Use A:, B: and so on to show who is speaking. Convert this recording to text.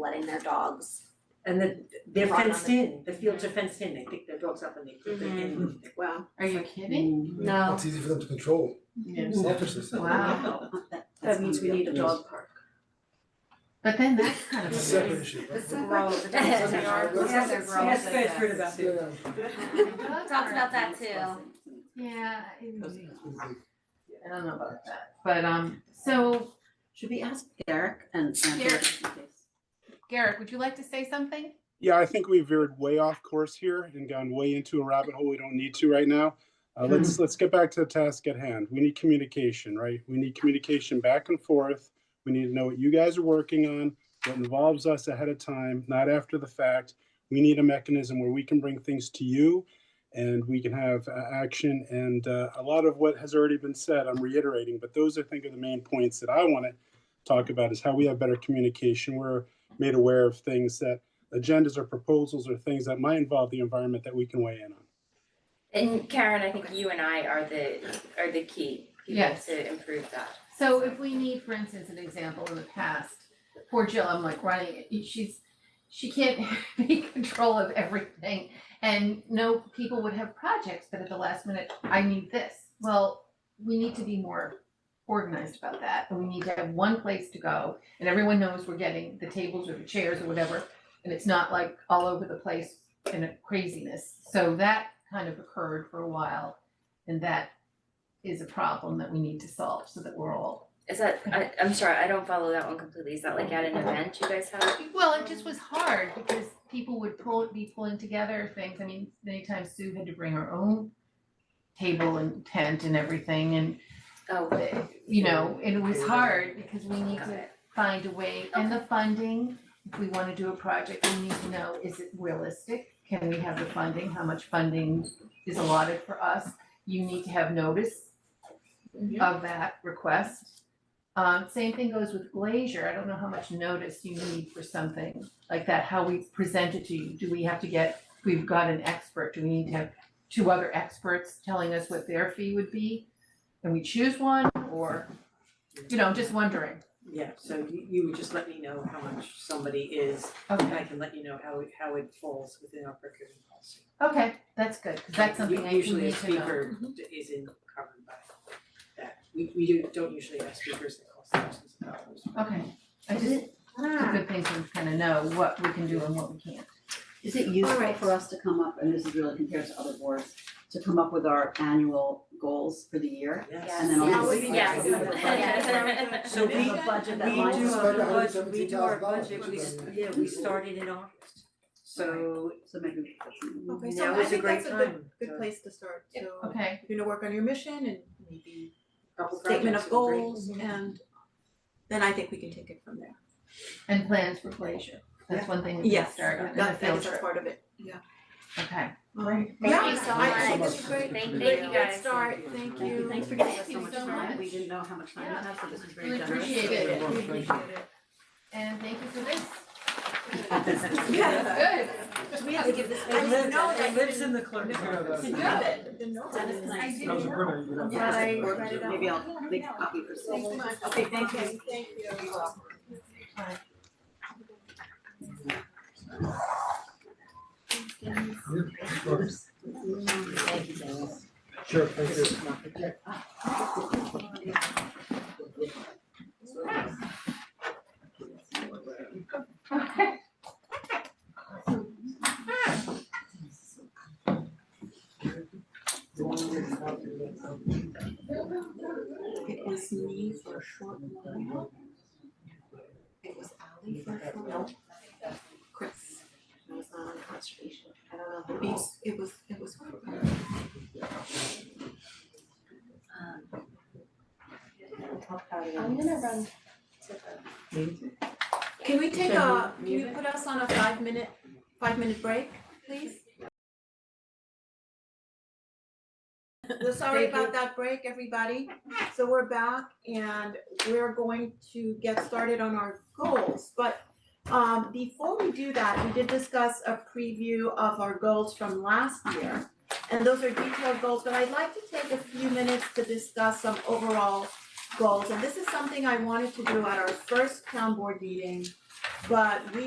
A: letting their dogs.
B: And the, they're
A: Right on
B: fenced
A: the-
B: in, the fields are fenced in, they pick their dogs up and they put them in.
A: Wow.
C: Are you kidding?
A: No.
D: It's easy for them to control, selfishness.
C: Wow.
B: That means we need a dog park.
C: But then that's kind of.
D: It's a separate issue.
A: This is
E: Gross.
A: gross.
D: Yes, they are.
E: Yes, they're gross,
B: Yes, I've heard
E: yes.
B: about it.
A: Talked about that too.
C: Yeah, I
D: Yeah.
C: I don't know about that, but um, so
F: Should we ask Derek and and
C: Derek.
F: just in case?
C: Garrick, would you like to say something?
G: Yeah, I think we veered way off course here and gone way into a rabbit hole we don't need to right now. Uh, let's let's get back to the task at hand. We need communication, right? We need communication back and forth. We need to know what you guys are working on, what involves us ahead of time, not after the fact. We need a mechanism where we can bring things to you, and we can have uh, action. And uh, a lot of what has already been said, I'm reiterating, but those I think are the main points that I want to talk about: is how we have better communication. We're made aware of things that agendas or proposals or things that might involve the environment that we can weigh in on.
H: And Karen, I think you and I are the, are the key people
C: Yes.
H: to improve that.
C: So if we need, for instance, an example in the past, poor Jill, I'm like running, she's, she can't be in control of everything. And no, people would have projects, but at the last minute, I need this. Well, we need to be more organized about that. And we need to have one place to go and everyone knows we're getting the tables or the chairs or whatever. And it's not like all over the place and a craziness. So that kind of occurred for a while. And that is a problem that we need to solve so that we're all.
H: Is that, I, I'm sorry, I don't follow that one completely. Is that like at an event you guys have?
C: Well, it just was hard because people would pull, be pulling together things. I mean, many times Sue had to bring her own table and tent and everything and,
H: Oh,
C: you know, and it was hard because we need
H: got
C: to
H: it.
C: find a way, and the funding, if we wanna do a project, we need to know, is it realistic? Can we have the funding, how much funding is allotted for us? You need to have notice of that request. Um, same thing goes with Glazier, I don't know how much notice you need for something like that, how we present it to you, do we have to get, we've got an expert, do we need to have two other experts telling us what their fee would be? And we choose one, or, you know, just wondering,
E: Yeah, so you you would just let me know how much somebody is,
C: okay.
E: and I can let you know how it how it falls within our procurement policy.
C: Okay, that's good, 'cause that's something I we
E: Usually a
C: need to know. Mm-hmm.
E: speaker d- isn't covered by that. We we do don't usually have speakers that cost thousands of dollars.
C: Okay, I just, it's a good thing to kind of know what we can do and what we can't.
F: Is it useful
A: Alright.
F: for us to come up, and this is really compared to other boards, to come up with our annual goals for the year? And then
A: Yes.
F: also
A: Yes.
H: Yes.
B: So we,
F: a budget that
B: we
F: lines
B: do
F: up
B: our
F: with our-
B: budget, we do our budget, we,
D: $117,000
B: yeah, we started in August. So
F: So maybe we could put some-
I: Okay, so
B: now
I: I
B: is a
I: think
B: great
I: that's a good,
B: time.
I: good place to start, so
C: Okay,
I: if you're gonna work on your mission and maybe
E: Couple
I: statement
E: projects
I: of
E: would be great.
I: goals and then I think we can take it from there.
C: and plans for Glacier, that's one thing we can
I: Yes,
C: start on, and a
I: That, that
C: field
I: is a
C: trip,
I: part of it,
C: okay.
I: alright.
A: Thank you
I: Yeah,
A: so
I: I- I think
A: much.
I: this is great.
H: Thank-
I: Great
H: thank you
I: good
H: guys.
I: Start, thank
F: Thank you,
I: you.
F: thanks for giving us
C: Thank
F: so
C: you
F: much
C: so
F: time, we
C: much.
F: didn't know how much time we
C: Yeah.
F: have, so this is very
C: Really
F: generous.
C: appreciate it,
F: So-
C: we appreciate it. And thank you for this,
I: Yeah.
C: good,
A: We have to give this.
I: I
B: it lives,
I: didn't know that
B: it
I: you
B: lives
I: didn't-
B: in the clerk's office.
I: Good, didn't know that.
A: Dennis,
C: I
A: nice.
C: did.
D: That was a good idea.
I: Yeah, I write it out.
F: Maybe I'll make a copy for some.
I: Thanks so much. Okay, thank you. Thank you.
D: Sure, thank you.
C: okay.
I: It was me for a short while. It was Ali for a short while. Chris. It was on conservation. I don't know, the beast, it was, it was.
H: Um, I'm gonna run to
I: Can we take a, can you put us on a five minute, five minute break, please? We're sorry about that break, everybody. So we're back and we're going to get started on our goals. But um before we do that, we did discuss a preview of our goals from last year. And those are detailed goals, but I'd like to take a few minutes to discuss some overall goals. And this is something I wanted to do at our first town board meeting but we